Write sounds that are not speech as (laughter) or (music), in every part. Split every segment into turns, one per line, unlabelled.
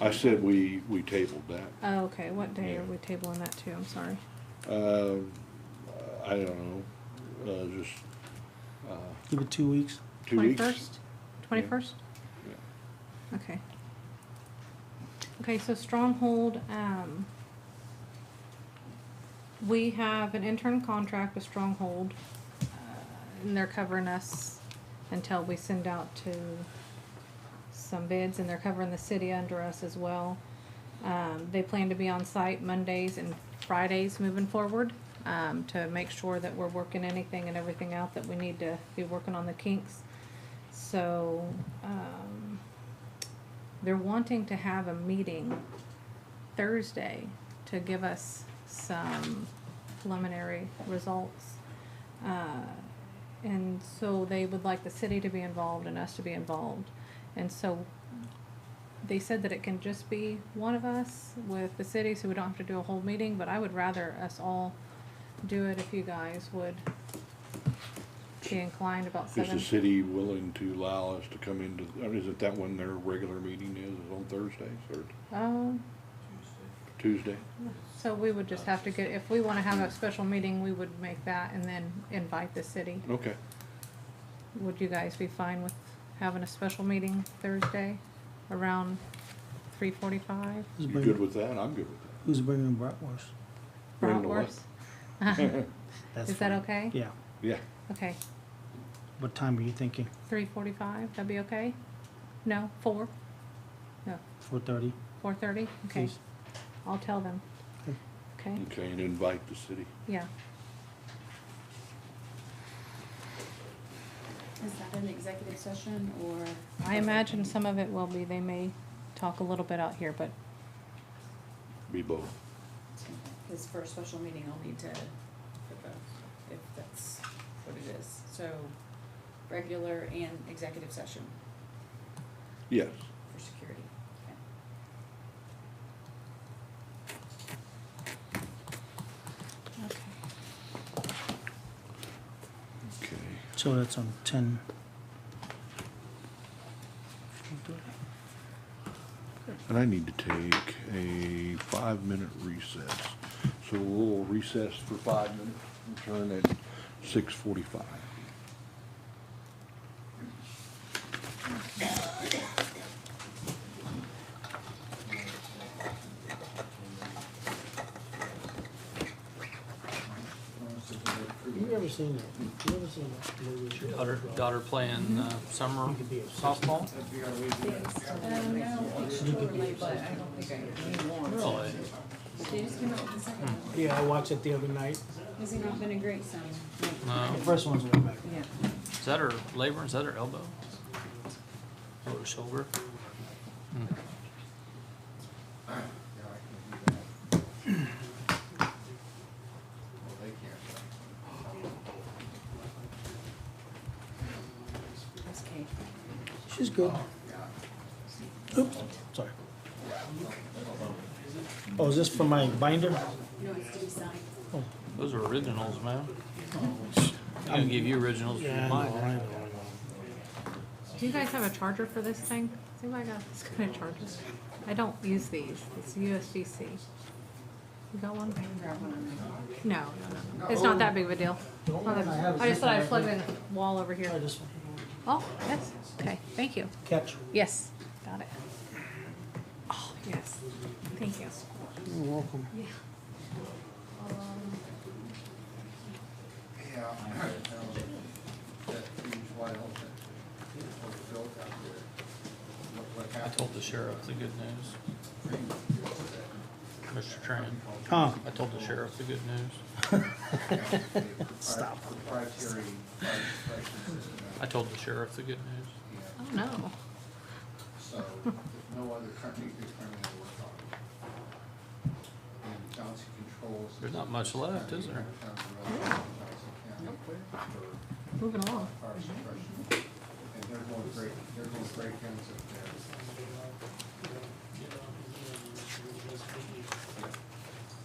I said we, we tabled that.
Oh, okay, what day are we tabling that to? I'm sorry.
Um, I don't know, uh, just, uh,
Give it two weeks.
two weeks.
Twenty-first? Twenty-first?
Yeah.
Okay. Okay, so Stronghold, um, we have an intern contract with Stronghold, uh, and they're covering us until we send out to some bids, and they're covering the city under us as well. Um, they plan to be on site Mondays and Fridays moving forward, um, to make sure that we're working anything and everything out that we need to be working on the kinks. So, um, they're wanting to have a meeting Thursday to give us some preliminary results. Uh, and so they would like the city to be involved and us to be involved. And so they said that it can just be one of us with the city, so we don't have to do a whole meeting, but I would rather us all do it if you guys would be inclined about
Is
seven.
the city willing to allow us to come into, I mean, isn't that when their regular meeting is, is on Thursdays or
Um,
Tuesday?
So we would just have to get, if we wanna have a special meeting, we would make that and then invite the city.
Okay,
Would you guys be fine with having a special meeting Thursday around three forty-five?
Who's
you good
bringing,
with that? I'm good with
who's bringing bratwurst?
Bring the what?
(laughs) Bratwurst?
That's
Is that
fine.
okay?
Yeah.
that. (laughs) Yeah,
Okay,
What time are you thinking?
three forty-five, that'd be okay? No, four? No,
Four thirty.
four thirty? Okay,
Please. Mm.
I'll tell them. Okay,
okay, and invite the city.
yeah.
Is that an executive session or?
I imagine some of it will be, they may talk a little bit out here, but
Be both.
Because for a special meeting, I'll need to, put both, if that's what it is. So, regular and executive session
Yes,
for security.
Okay.
okay.
So that's on ten. Four thirty.
And I need to take a five-minute recess. So we'll recess for five minutes, return at six forty-five.
You ever seen that? You ever seen that movie?
Daughter, daughter playing uh, summer softball?
Um, no, it's totally, but I don't think I need more.
Really?
They just came out with the second one.
Yeah, I watched it the other night.
Has he not been a great son?
No.
The first one's way back.
Yeah.
Is that her labor? Is that her elbow? Or her shoulder? Hmm.
That's Kate.
She's good. Oops, sorry. Oh, is this for my binder?
No, it's to be signed.
Those are originals, man. I'm gonna give you originals for
Yeah, I know, I
mine.
know,
Do you guys have a charger for this thing? See what I got, this kind of charger. I don't use these, it's USB-C. You got one? No, no, no, it's not that big of a deal. I just thought I'd plug it in the wall over
I know.
here.
Try this one.
Oh, yes, okay, thank you.
Catch.
Yes, got it. Oh, yes, thank you.
You're welcome.
Yeah.
Yeah, I heard that that huge white elephant was built out there. Look what
I
happened.
told the sheriff the good news. Mr. Tran,
Huh,
I told the sheriff the good news.
Stop. Proprietary fire suppression system,
I told the sheriff the good news.
yeah.
Oh, no.
so no other country could turn that work on. And Johnson Controls.
There's not much left, is there?
Johnson County
Moving along.
for fire suppression. And they're going break, they're going breakdowns up there.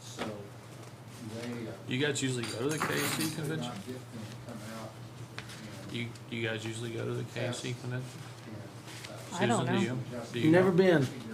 So they, uh,
You guys usually go to the KC
could
convention?
not get them to come out and,
You, you guys usually go to the KC convention?
and, uh,
I don't
Susan, do
know.
you? Do you?
never
go?
been.
they